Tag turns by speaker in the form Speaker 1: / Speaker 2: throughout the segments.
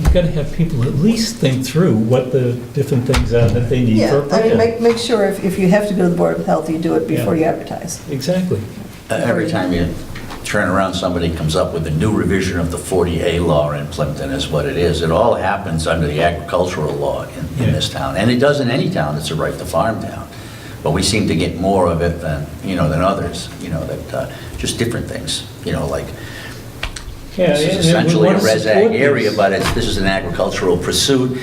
Speaker 1: You've got to have people at least think through what the different things are that they need for a
Speaker 2: Yeah, I mean,
Speaker 1: project.
Speaker 2: make, make sure if, if you have to go to the Board of Health, you do it before you advertise.
Speaker 1: Exactly.
Speaker 3: Uh, Every time you turn around, somebody comes up with a new revision of the 40A law in Plimpton is what it is. It all happens under the agricultural law in, in this town. And it does in any town that's a right to farm town. But we seem to get more of it than, you know, than others, you know, that, uh, just different things, you know, like,
Speaker 1: Yeah, and- and
Speaker 3: this
Speaker 1: we
Speaker 3: is essentially a
Speaker 1: wanna
Speaker 3: res
Speaker 1: support
Speaker 3: ag area,
Speaker 1: these.
Speaker 3: but it's, this is an agricultural pursuit.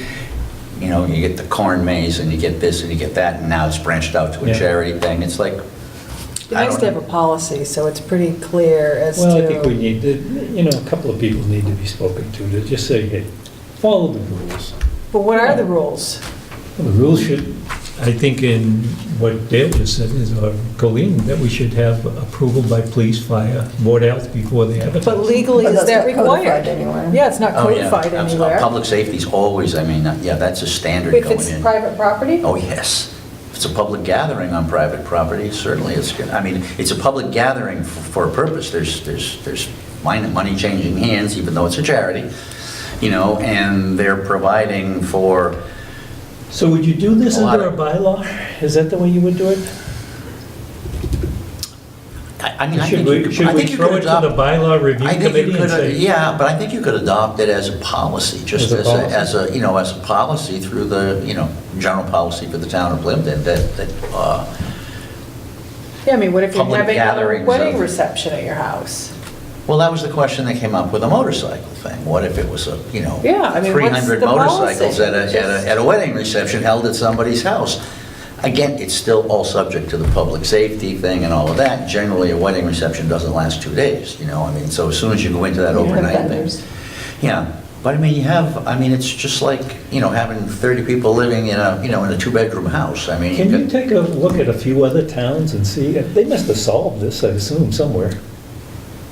Speaker 3: You know, you get the corn maze and you get this and you get that, and now it's branched out to a
Speaker 1: Yeah.
Speaker 3: charity thing. It's like,
Speaker 4: It
Speaker 3: I
Speaker 4: has to
Speaker 3: don't-
Speaker 4: have a policy, so it's pretty clear as to.
Speaker 1: Well, I think we need, to- you know, a couple of people need to be spoken to, to just say, hey, follow the rules.
Speaker 4: But what are the rules?
Speaker 1: Well, The rules should, I think in what Dale just said, is, or Colleen, that we should have approval by police, fire, board health before they advertise.
Speaker 4: But legally,
Speaker 2: But
Speaker 4: is
Speaker 2: that's
Speaker 4: that
Speaker 2: not codified
Speaker 4: required?
Speaker 2: anywhere.
Speaker 4: Yeah, it's not
Speaker 3: Oh, yeah.
Speaker 4: codified
Speaker 3: Abs-
Speaker 4: anywhere.
Speaker 3: Public safety's always, I mean, yeah, that's a standard
Speaker 4: If
Speaker 3: going
Speaker 4: it's
Speaker 3: in.
Speaker 4: private property?
Speaker 3: Oh, yes. If it's a public gathering on private property, certainly it's, gonna- I mean, it's a public gathering f- for a purpose. There's, there's, there's min- money changing hands, even though it's a charity, you know, and they're providing for,
Speaker 1: So would you do this
Speaker 3: A lot
Speaker 1: under a
Speaker 3: of-
Speaker 1: bylaw? Is that the way you would do it?
Speaker 3: I I mean, I
Speaker 1: Should
Speaker 3: think you
Speaker 1: we,
Speaker 3: could-
Speaker 1: should
Speaker 3: I
Speaker 1: we
Speaker 3: think you
Speaker 1: throw
Speaker 3: could
Speaker 1: it to the
Speaker 3: adopt.
Speaker 1: bylaw review
Speaker 3: I think
Speaker 1: committee
Speaker 3: you
Speaker 1: and
Speaker 3: could, uh,
Speaker 1: say,
Speaker 3: yeah, but I think you could adopt it as a policy,
Speaker 1: As
Speaker 3: just
Speaker 1: a
Speaker 3: as a,
Speaker 1: policy.
Speaker 3: as a, you know, as a policy through the, you know, general policy for the town of Plimpton that, that, uh,
Speaker 4: Yeah, I mean, what if you're
Speaker 3: Public
Speaker 4: having a
Speaker 3: gatherings
Speaker 4: wedding
Speaker 3: of-
Speaker 4: reception at your house?
Speaker 3: Well, that was the question that came up with the motorcycle thing. What if it was a, you know,
Speaker 4: Yeah, I mean, what's
Speaker 3: 300
Speaker 4: the
Speaker 3: motorcycles
Speaker 4: policy?
Speaker 3: at a, at a, at a wedding reception held at somebody's house? Again, it's still all subject to the public safety thing and all of that. Generally, a wedding reception doesn't last two days, you know, I mean, so as soon as you go into that
Speaker 2: You have
Speaker 3: overnight
Speaker 2: vendors.
Speaker 3: thing. Yeah, but I mean, you have, I mean, it's just like, you know, having 30 people living in a, you know, in a two-bedroom house. I mean,
Speaker 1: can
Speaker 3: you
Speaker 1: you
Speaker 3: could-
Speaker 1: take a look at a few other towns and see, they must have solved this, I assume, somewhere.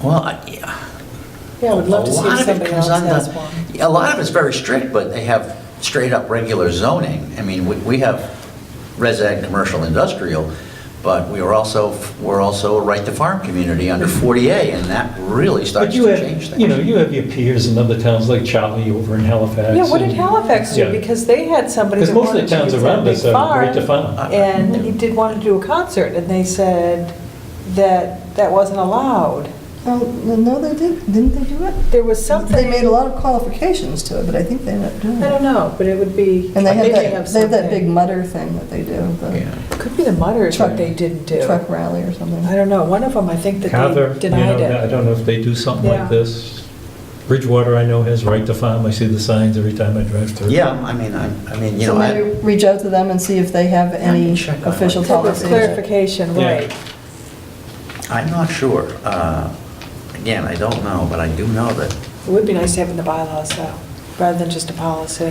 Speaker 3: well, I- yeah.
Speaker 4: Yeah, I would love to see
Speaker 3: A lot of
Speaker 4: if
Speaker 3: it
Speaker 4: somebody
Speaker 3: comes
Speaker 4: else
Speaker 3: under-
Speaker 4: has one.
Speaker 3: A lot of it's very strict, but they have straight-up regular zoning. I mean, we we have res ag, commercial, industrial, but we are also, we're also a right-to-farm community under 40A, and that really starts
Speaker 1: But
Speaker 3: to
Speaker 1: you
Speaker 3: change
Speaker 1: have,
Speaker 3: things.
Speaker 1: you know, you have your peers in other towns like Charlie over in Halifax.
Speaker 4: Yeah, what did
Speaker 1: and-
Speaker 4: Halifax do?
Speaker 1: Yeah.
Speaker 4: Because they had somebody
Speaker 1: Because
Speaker 4: that
Speaker 1: most of
Speaker 4: wanted
Speaker 1: the
Speaker 4: to
Speaker 1: towns
Speaker 4: use
Speaker 1: around us
Speaker 4: their
Speaker 1: are great
Speaker 4: big
Speaker 1: to
Speaker 4: farm.
Speaker 1: farm.
Speaker 4: And he did want to do a concert, and they said that that wasn't allowed.
Speaker 2: Oh, No, they did, didn't they do it?
Speaker 4: There was something.
Speaker 2: They made a lot of qualifications to it, but I think they ended up doing
Speaker 4: I don't
Speaker 2: it.
Speaker 4: know, but it would be.
Speaker 2: And they
Speaker 4: maybe
Speaker 2: have that, they have that
Speaker 4: something.
Speaker 2: big mutter thing that they do,
Speaker 3: Yeah.
Speaker 2: the
Speaker 4: Could be the mutters
Speaker 2: Truck-
Speaker 4: that they didn't do.
Speaker 2: truck rally or something.
Speaker 4: I don't know, one of them, I think that
Speaker 1: Carver,
Speaker 4: they
Speaker 1: you know,
Speaker 4: denied
Speaker 1: I
Speaker 4: it.
Speaker 1: don't know if they do something
Speaker 4: Yeah.
Speaker 1: like this. Bridgewater, I know, has right to farm. I see the signs every time I drive through.
Speaker 3: Yeah, I mean, I I mean, you know,
Speaker 2: So maybe
Speaker 3: I-
Speaker 2: reach out to them and see if they have any
Speaker 3: can check on
Speaker 2: official
Speaker 3: it.
Speaker 4: There was
Speaker 2: policies.
Speaker 4: clarification,
Speaker 1: Yeah.
Speaker 4: right.
Speaker 3: I'm not sure. Uh, Again, I don't know, but I do know that
Speaker 4: It would be nice to have in the bylaws, though, rather than just a policy.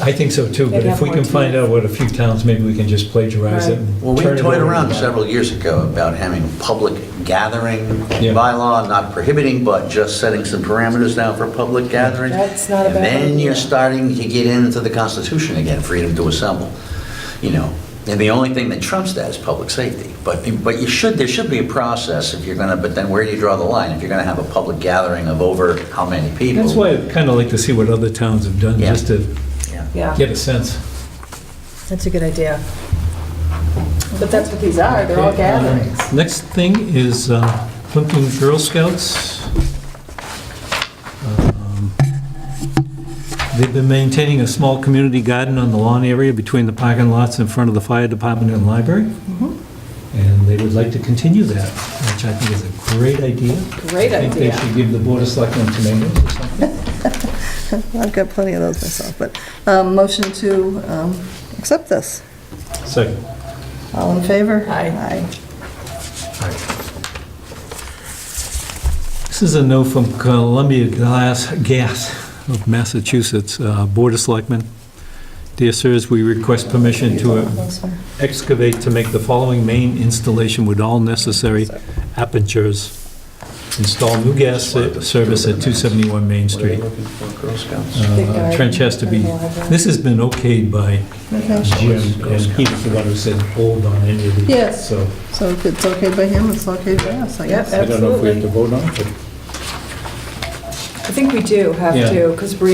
Speaker 1: I think so too, but if
Speaker 4: They'd have
Speaker 1: we
Speaker 4: more
Speaker 1: can
Speaker 4: teeth.
Speaker 1: find out what a few towns, maybe we can just plagiarize it.
Speaker 4: Right.
Speaker 1: and
Speaker 3: Well, we
Speaker 1: turn it
Speaker 3: toyed
Speaker 1: over.
Speaker 3: around several years ago about having a public gathering
Speaker 1: Yeah.
Speaker 3: bylaw, not prohibiting, but just setting some parameters down for public gathering.
Speaker 4: That's not a bad
Speaker 3: And then
Speaker 4: idea.
Speaker 3: you're starting to get into the Constitution again, freedom to assemble, you know. And the only thing that trumps that is public safety. But, but you should, there should be a process if you're gonna, but then where do you draw the line? If you're gonna have a public gathering of over how many people?
Speaker 1: That's why I'd kind of like to see what other towns have done,
Speaker 3: Yeah.
Speaker 1: just to
Speaker 3: Yeah.
Speaker 1: get
Speaker 4: Yeah,
Speaker 1: a sense.
Speaker 4: that's a good idea. But that's what these are, they're all
Speaker 1: Okay, um,
Speaker 4: gatherings.
Speaker 1: Next thing is uh, Plimpton Girl Scouts. Um, They've been maintaining a small community garden on the lawn area between the parking lots in front of the fire department and library.
Speaker 4: Mm-hmm.
Speaker 1: And they would like to continue that, which I think is a great idea.
Speaker 4: Great
Speaker 1: I think they
Speaker 4: idea.
Speaker 1: should give the Board of Selectmen tomatoes or something.
Speaker 2: I've got plenty of those myself, but, um, motion to, um, accept this.
Speaker 1: Second.
Speaker 2: All in favor?
Speaker 4: Aye.
Speaker 1: This is a note from Columbia Glass Gas of Massachusetts, uh, Board of Selectmen. Dear sirs, we request permission to uh, excavate to make the following main installation with all necessary apertures. Install new gas ser- service at 271 Main
Speaker 3: What are they
Speaker 1: Street.
Speaker 3: looking for, Girl Scouts?
Speaker 1: Uh, Trench has to be, this has been okayed by
Speaker 2: Okay,
Speaker 1: Jim, and he was the one who said hold on any of these.
Speaker 2: Yes.
Speaker 1: So
Speaker 2: so if it's okay by him, it's okay by us, I guess.
Speaker 4: Yep.
Speaker 1: I don't know if we have to vote on it, but
Speaker 4: think we do have
Speaker 1: Yeah.
Speaker 4: to, because Bree